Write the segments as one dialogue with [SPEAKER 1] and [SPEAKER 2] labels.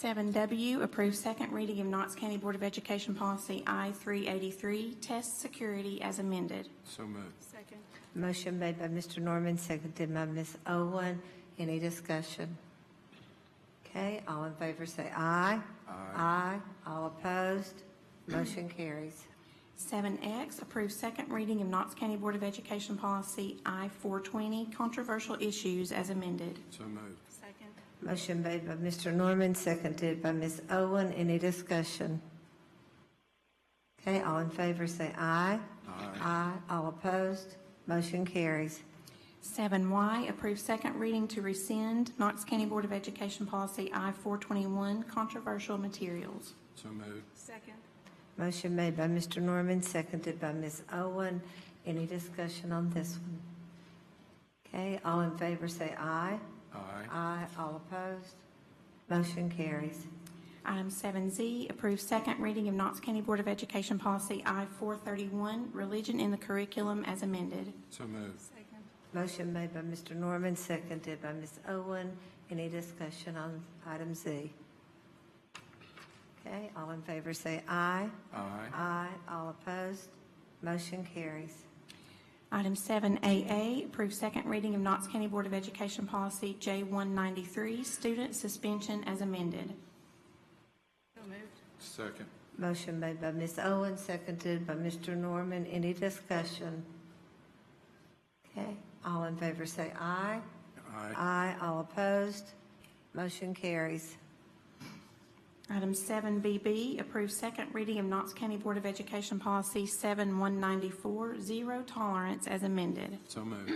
[SPEAKER 1] 7W, approve second reading of Knox County Board of Education Policy I-383, test security as amended.
[SPEAKER 2] So moved.
[SPEAKER 3] Second.
[SPEAKER 4] Motion made by Mr. Norman, seconded by Ms. Owen. Any discussion? Okay, all in favor say aye. Aye. All opposed, motion carries.
[SPEAKER 1] 7X, approve second reading of Knox County Board of Education Policy I-420, controversial issues as amended.
[SPEAKER 2] So moved.
[SPEAKER 3] Second.
[SPEAKER 4] Motion made by Mr. Norman, seconded by Ms. Owen. Any discussion? Okay, all in favor say aye. Aye. All opposed, motion carries.
[SPEAKER 1] 7Y, approve second reading to rescind Knox County Board of Education Policy I-421, controversial materials.
[SPEAKER 2] So moved.
[SPEAKER 3] Second.
[SPEAKER 4] Motion made by Mr. Norman, seconded by Ms. Owen. Any discussion on this one? Okay, all in favor say aye.
[SPEAKER 2] Aye.
[SPEAKER 4] Aye. All opposed? Motion carries.
[SPEAKER 1] Item 7Z, approve second reading of Knox County Board of Education Policy I-431, religion in the curriculum as amended.
[SPEAKER 2] So moved.
[SPEAKER 3] Second.
[SPEAKER 4] Motion made by Mr. Norman, seconded by Ms. Owen. Any discussion on item Z? Okay, all in favor say aye.
[SPEAKER 2] Aye.
[SPEAKER 4] Aye. All opposed? Motion carries.
[SPEAKER 1] Item 7AA, approve second reading of Knox County Board of Education Policy J193, student suspension as amended.
[SPEAKER 3] So moved.
[SPEAKER 2] Second.
[SPEAKER 4] Motion made by Ms. Owen, seconded by Mr. Norman. Any discussion? Okay, all in favor say aye.
[SPEAKER 2] Aye.
[SPEAKER 4] Aye. All opposed? Motion carries.
[SPEAKER 1] Item 7BB, approve second reading of Knox County Board of Education Policy 7194, zero tolerance as amended.
[SPEAKER 2] So moved.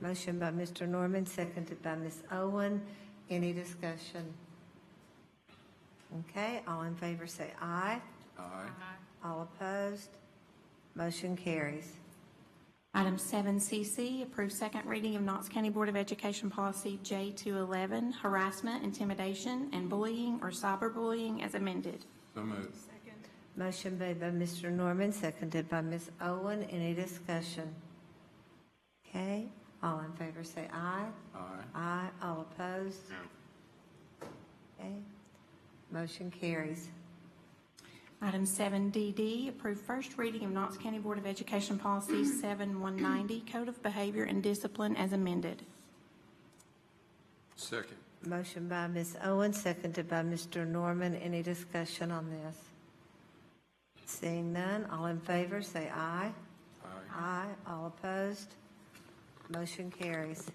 [SPEAKER 4] Motion by Mr. Norman, seconded by Ms. Owen. Any discussion? Okay, all in favor say aye.
[SPEAKER 2] Aye.
[SPEAKER 4] All opposed? Motion carries.
[SPEAKER 1] Item 7CC, approve second reading of Knox County Board of Education Policy J211, harassment, intimidation, and bullying or cyberbullying as amended.
[SPEAKER 2] So moved.
[SPEAKER 3] Second.
[SPEAKER 4] Motion made by Mr. Norman, seconded by Ms. Owen. Any discussion? Okay, all in favor say aye.
[SPEAKER 2] Aye.
[SPEAKER 4] Aye. All opposed? Okay, motion carries.
[SPEAKER 1] Item 7DD, approve first reading of Knox County Board of Education Policy 7190, code of behavior and discipline as amended.
[SPEAKER 2] Second.
[SPEAKER 4] Motion by Ms. Owen, seconded by Mr. Norman. Any discussion on this? Seeing none, all in favor, say aye.
[SPEAKER 2] Aye.
[SPEAKER 4] Aye. All opposed? Motion carries.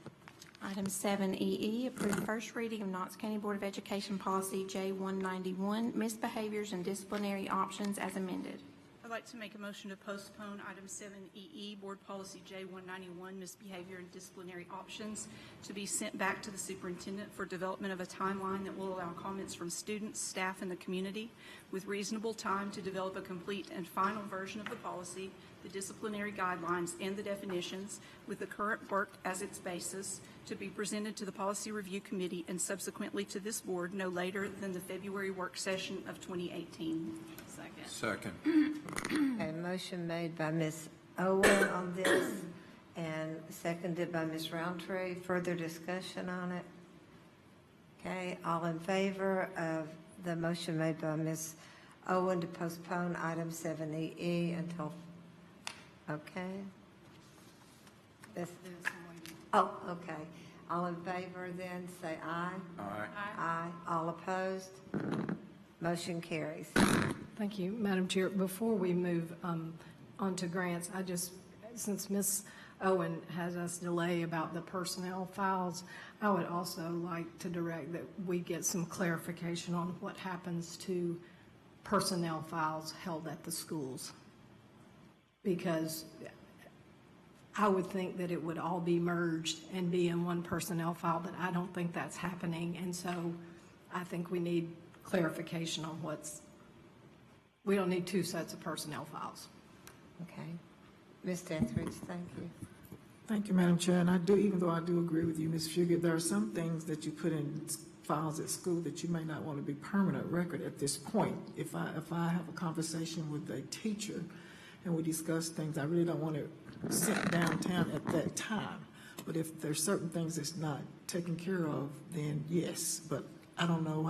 [SPEAKER 1] Item 7EE, approve first reading of Knox County Board of Education Policy J191, misbehaviors and disciplinary options as amended.
[SPEAKER 3] I'd like to make a motion to postpone item 7EE, Board Policy J191, Misbehavior and Disciplinary Options, to be sent back to the superintendent for development of a timeline that will allow comments from students, staff, and the community with reasonable time to develop a complete and final version of the policy, the disciplinary guidelines, and the definitions with the current work as its basis to be presented to the Policy Review Committee and subsequently to this board no later than the February work session of 2018. Second.
[SPEAKER 2] Second.
[SPEAKER 4] Okay, motion made by Ms. Owen on this and seconded by Ms. Roundtree. Further discussion on it? Okay, all in favor of the motion made by Ms. Owen to postpone item 7EE until, okay? This, oh, okay. All in favor then, say aye.
[SPEAKER 2] Aye.
[SPEAKER 4] Aye. All opposed? Motion carries.
[SPEAKER 5] Thank you, Madam Chair. Before we move um, on to grants, I just, since Ms. Owen has us delay about the personnel files, I would also like to direct that we get some clarification on what happens to personnel files held at the schools. Because I would think that it would all be merged and be in one personnel file, but I don't think that's happening. And so I think we need clarification on what's we don't need two sets of personnel files.
[SPEAKER 4] Okay. Ms. Etheridge, thank you.
[SPEAKER 6] Thank you, Madam Chair, and I do, even though I do agree with you, Ms. Fugit, there are some things that you put in s- files at school that you may not want to be permanent record at this point. If I, if I have a conversation with a teacher and we discuss things, I really don't want it sent downtown at that time. But if there's certain things that's not taken care of, then yes, but I don't know